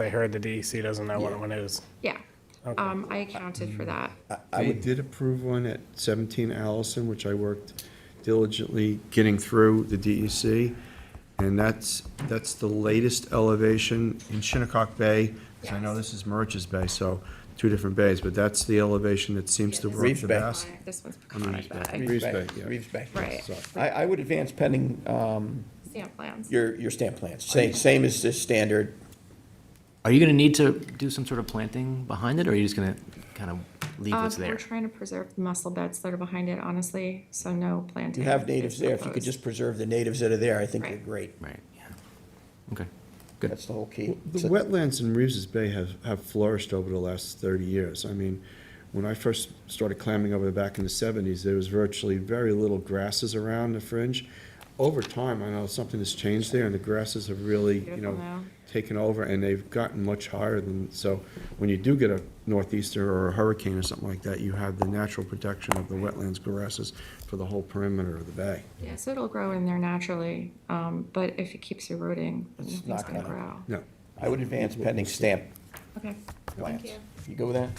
I heard the DEC doesn't know what one is. Yeah. Um, I accounted for that. Uh, I did approve one at 17 Allison, which I worked diligently getting through the DEC. And that's, that's the latest elevation in Shinnecock Bay. 'cause I know this is Merch's Bay, so two different bays, but that's the elevation that seems to work Reeves the Bay. best. This one's mean, Peconic Bay, Reeves Bay, Reeves Bay, yeah. Reeves Bay. Right. I, I would advance pending, um, stamp plans. your, your stamp plans, same, same as the standard. Are you gonna need to do some sort of planting behind it, or are you just gonna kind of leave Um, what's we're there? trying to preserve the mussel beds that are behind it, honestly, so no planting. You have natives is there, if you could proposed. just preserve the natives that are there, I think they're Right. great. Right, yeah. Okay, good. That's the whole key. The wetlands in Reeves's Bay have, have flourished over the last thirty years. I mean, when I first started clamming over there back in the seventies, there was virtually very little grasses around the fringe. Over time, I know something has changed there, and the grasses have really, you Beautiful know, now. taken over, and they've gotten much higher than, so when you do get a northeaster or a hurricane or something like that, you have the natural protection of the wetlands grasses for the whole perimeter of the bay. Yeah, so it'll grow in there naturally, um, but if it keeps eroding, It's nothing's not gonna gonna- grow. No, I would advance pending stamp Okay, plans. you. You go with that?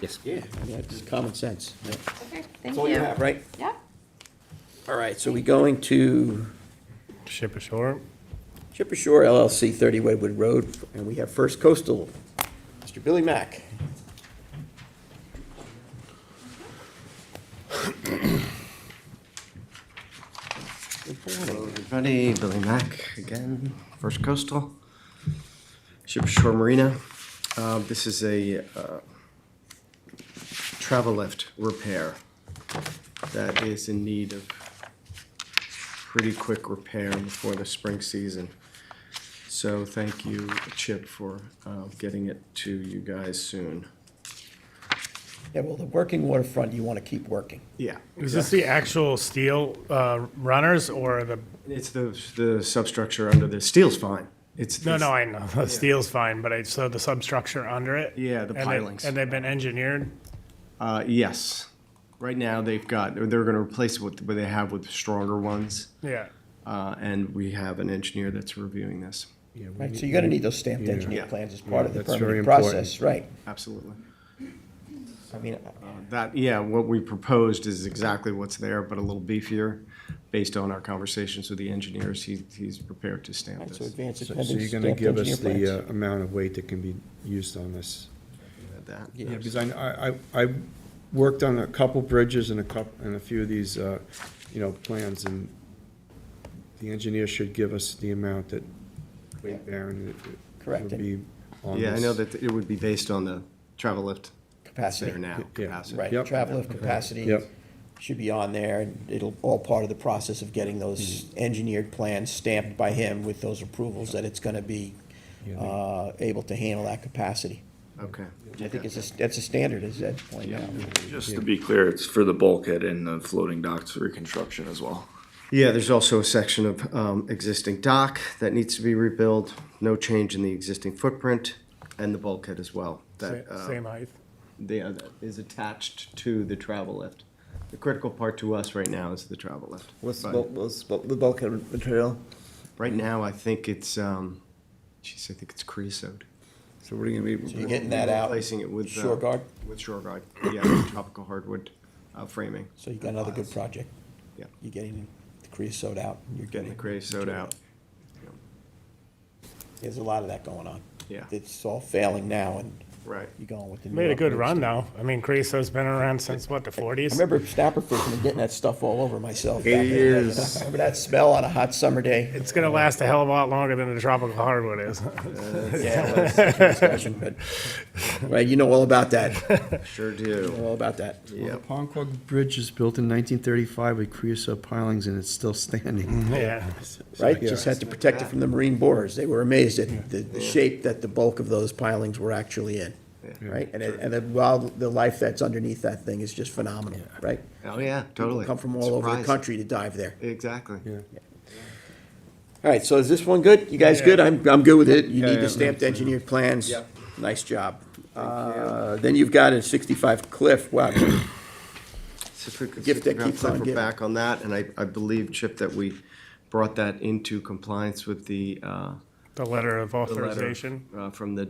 Yes. Yeah. That's common sense. Yeah. okay, thank That's all you you. have, right? Yeah. All right, so we going to Ship ashore, Chip Ashore LLC, 30 Wedwood Road, and we have First Coastal, Mr. Billy Mack. Hello, everybody. Billy Mack again, First Coastal, Ship Shore Marina. Uh, This is a uh, travel lift repair that is in need of pretty quick repair before the spring season. So thank you, Chip, for uh, getting it to you guys soon. Yeah, well, the working waterfront, you want to keep working. Yeah. is this the actual steel uh, runners or the, It's the, the substructure under the, steel's fine. It's. no, the- no, I know, the steel's fine, but I, so the substructure under it? Yeah, the And they- pilings. And they've been engineered? Uh, yes. Right now, they've got, or they're gonna replace what, what they have with stronger ones, Yeah. uh, and we have an engineer that's reviewing this. Right, so you're going to need those stamped engineer Yeah. plans as part of the Yeah, that's very permitting important. process, right? Absolutely. I mean, That, yeah, what we proposed is exactly what's there, but a little beefier. Based on our conversations with the engineers, he, he's prepared to stamp so this. advance it so pending so you're stamped gonna give engineer us plans. the uh, amount of weight that can be used on this That. Yeah, because I, I, I I worked on a couple bridges and a couple, and a few of these, uh, you know, plans, and the engineer should give us the amount that weight bearing it- it Correct. would be on this. Yeah, I know that it would be based on the travel lift Capacity. there now, Yeah, capacity. Right, Yep. travel of capacity. Yep. Should be on there, and it'll, all part of the process of getting those Hmm. engineered plans stamped by him with those approvals that it's going to be uh, able to handle that capacity. Okay. I think it's a, that's a standard, is that point now. Just to be clear, it's for the bulkhead and the floating docks reconstruction as well. Yeah, there's also a section of um, existing dock that needs to be rebuilt, no change in the existing footprint, and the bulkhead as well. That uh, Sa- Same height? the, uh, that is attached to the travel lift. The critical part to us right now is the travel lift. What's the, But bul- what's the bul- the bulkhead material? Mm-hmm. Right now, I think it's, um, geez, I think it's creosote. So what are you gonna be? You're getting that out. Replacing it with. uh, Shore guard, With shore guard, yeah, tropical hardwood uh, framing. so you got another good project. Yeah. You're getting the creosote out. and You're Getting the creosote out. There's a lot of that going on. Yeah. It's all failing now, and Right. you're going with the. new Made a good upgrades. run though. I mean, Creosote's been around since what, the I forties? remember snapper fishing and getting that stuff all over myself. back It in the day. is. Remember that smell on a hot summer day? It's gonna last a hell of a lot longer than the tropical hardwood is. Yeah, well, that's a discussion, but- Right, you know all about that, Sure You do. know all about that. Well, the Ponquag Bridge is built in nineteen thirty-five with creosote pilings, and it's still standing. Yeah. right? Just had to protect it from the marine borers. They were amazed at the, the shape that the bulk of those pilings were actually in, right? And, it- and the wild, the life that's underneath that thing is just phenomenal, right? Oh, yeah, People totally. come from all over the Surprising. country to dive there. Exactly. Yeah. All right, so is this one good? You guys good? I'm, I'm good with it. You need yeah. uh, the stamped engineered plans. Nice job. Uh, then you've got a sixty-five Cliff. Wow, So if we could- Gift that if we keeps on could giving. We're back on that, and I, I believe, Chip, that we brought that into compliance with the, uh, The letter of the letter, authorization. uh, from the